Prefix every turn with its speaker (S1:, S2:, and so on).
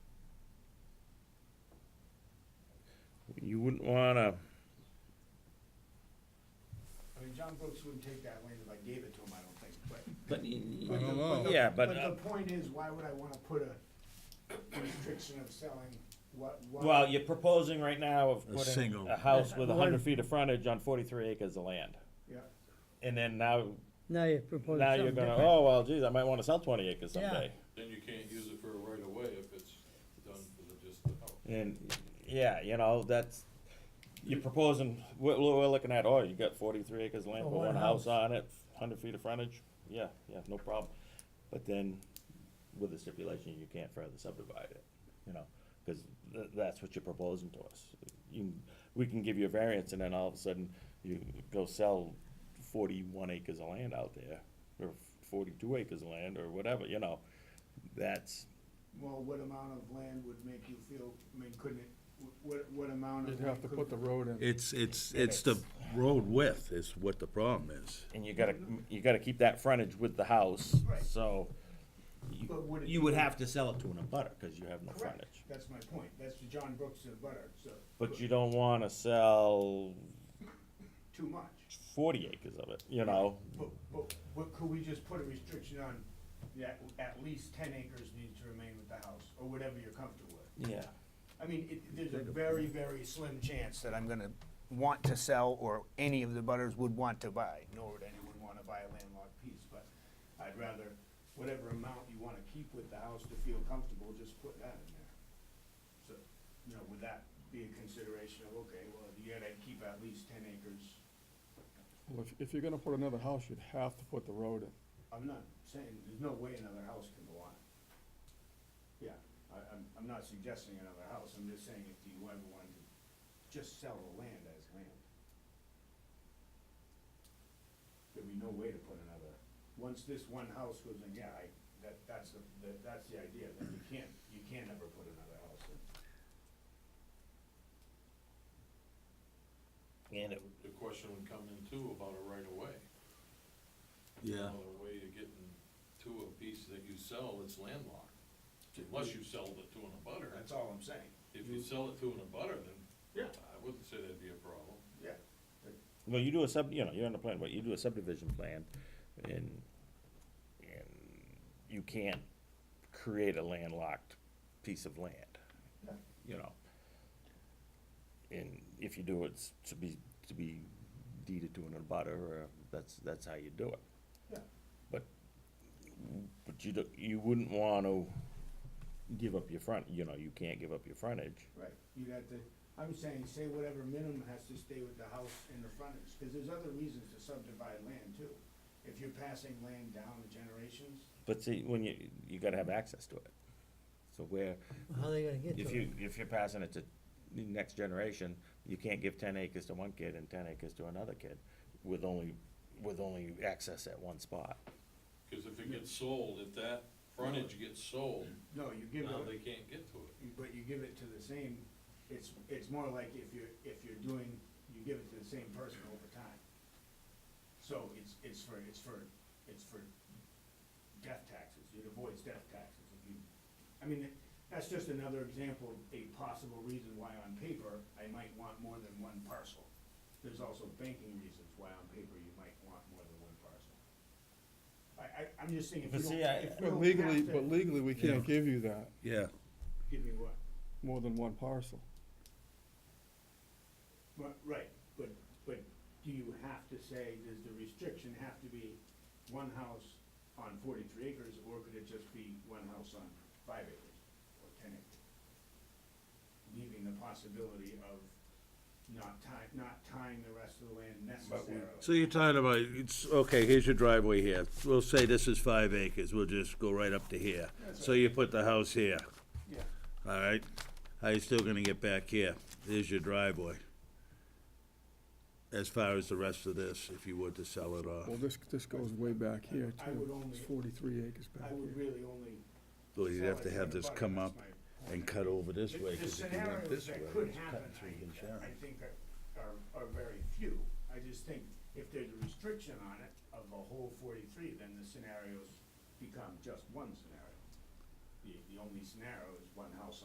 S1: Brooks wouldn't take that land if I gave it to him, I don't think, but.
S2: But, y- y-
S1: but the-
S3: don't
S1: but
S3: know.
S1: the-
S2: Yeah, but, uh,
S1: But the point is, why would I wanna put a restriction of selling what, what?
S2: well, you're proposing right now of
S3: A
S2: putting
S3: single.
S2: a house with
S4: One-
S2: hundred feet of frontage on forty-three acres of land.
S1: Yeah,
S2: And then now,
S4: Now you're proposing
S2: now you're
S4: something
S2: gonna,
S4: different.
S2: oh, well, geez, I might wanna sell twenty acres
S4: Yeah.
S2: someday.
S5: Then you can't use it for a right of way if it's done for the, just the house.
S2: And, yeah, you know, that's, you're proposing, we're, we're looking at, oh, you got forty-three acres of land,
S4: For
S2: put
S4: one
S2: one house
S4: house.
S2: on it, hundred feet of frontage, yeah, yeah, no problem. But then, with the stipulation, you can't further subdivide it, you know, cause th- that's what you're proposing to us. You, we can give you a variance, and then all of a sudden, you go sell forty-one acres of land out there, or forty-two acres of land, or whatever, you know, that's,
S1: well, what amount of land would make you feel, I mean, couldn't it, wh- what, what amount of?
S6: You'd have
S1: land
S6: to
S1: could-
S6: put the road in.
S3: It's, it's, it's the road width is what the problem is.
S2: And you gotta, you gotta keep that frontage with the house,
S1: Right.
S2: so. you-
S1: But would it
S2: You
S1: be-
S2: would have to sell it to an abutter, cause you have no
S1: Correct,
S2: frontage.
S1: that's my point, that's the John Brooks and Butter, so.
S2: But you don't wanna sell
S1: Too much.
S2: forty acres of it, you know?
S1: But, but, but could we just put a restriction on that at least ten acres needs to remain with the house, or whatever you're comfortable with?
S2: Yeah.
S1: I mean, it, there's a very, very slim chance that I'm gonna want to sell, or any of the butters would want to buy, nor would anyone wanna buy a landlocked piece, but I'd rather, whatever amount you wanna keep with the house to feel comfortable, just put that in there. So, you know, would that be a consideration of, okay, well, you gotta keep at least ten acres,
S6: Well, if, if you're gonna put another house, you'd have to put the road in.
S1: I'm not saying, there's no way another house can go on it. Yeah, I, I'm, I'm not suggesting another house, I'm just saying if you ever wanted to just sell the land as land. There'd be no way to put another, once this one house goes in, yeah, I, that, that's the, that- that's the idea, then you can't, you can't ever put another house in.
S2: And it,
S5: The question would come in too about a right of way.
S3: Yeah.
S5: Another way to getting to a piece that you sell that's landlocked, unless you sold it to an abutter.
S1: That's all I'm saying.
S5: If you sell it to an abutter, then
S1: Yeah.
S5: I wouldn't say that'd be a problem.
S1: Yeah,
S2: well, you do a sub, you know, you're on the plan, but you do a subdivision plan and, and you can't create a landlocked piece of land,
S1: Yeah.
S2: you know? And if you do it, it's to be, to be deeded to an abutter, or that's, that's how you do it.
S1: yeah,
S2: But, but you do, you wouldn't wanna give up your front, you know, you can't give up your frontage.
S1: right, you got to, I'm saying, say whatever minimum has to stay with the house and the frontage, cause there's other reasons to subdivide land too. If you're passing land down to generations,
S2: But see, when you, you gotta have access to it. So where,
S4: How are they gonna get
S2: oh. if
S4: to it?
S2: you, if you're passing it to the next generation, you can't give ten acres to one kid and ten acres to another kid with only, with only access at one spot.
S5: Cause if it gets sold, if that frontage gets sold,
S1: no, you give it.
S5: now they can't get to it.
S1: you- but you give it to the same, it's, it's more like if you're, if you're doing, you give it to the same person over time. So it's, it's for, it's for, it's for death taxes, it avoids death taxes if you, I mean, that's just another example of a possible reason why on paper I might want more than one parcel. There's also banking reasons why on paper you might want more than one parcel. I, I, I'm just saying if
S2: But
S1: you don't,
S2: see, I-
S1: if we
S6: But
S1: don't
S6: legally,
S1: have to-
S6: but legally, we can't give you that,
S3: Yeah,
S1: Give me what?
S6: more than one parcel.
S1: Right, right, but, but do you have to say, does the restriction have to be one house on forty-three acres, or could it just be one house on five acres or ten acres? Leaving the possibility of not tying, not tying the rest of the land necessarily.
S3: so you're talking about, it's, okay, here's your driveway here, we'll say this is five acres, we'll just go right up to here. So you put the house here,
S1: Yeah,
S3: all right, how you still gonna get back here? There's your driveway. As far as the rest of this, if you were to sell it off,
S6: Well, this, this goes way back here
S1: I would
S6: too.
S1: only-
S6: It's forty-three acres back
S1: I would
S6: here.
S1: really only.
S3: well, you'd
S1: sell
S3: have
S1: it
S3: to have
S1: the
S3: this
S1: butter,
S3: come
S1: that's
S3: up
S1: my-
S3: and cut over this way,
S1: The-
S3: 'cause if you
S1: The
S3: went
S1: scenarios
S3: this way,
S1: that could
S3: it's
S1: happen,
S3: cutting through the
S1: I,
S3: shaft.
S1: I think are, are, are very few. I just think if there's a restriction on it of the whole forty-three, then the scenarios become just one scenario. The, the only scenario is one house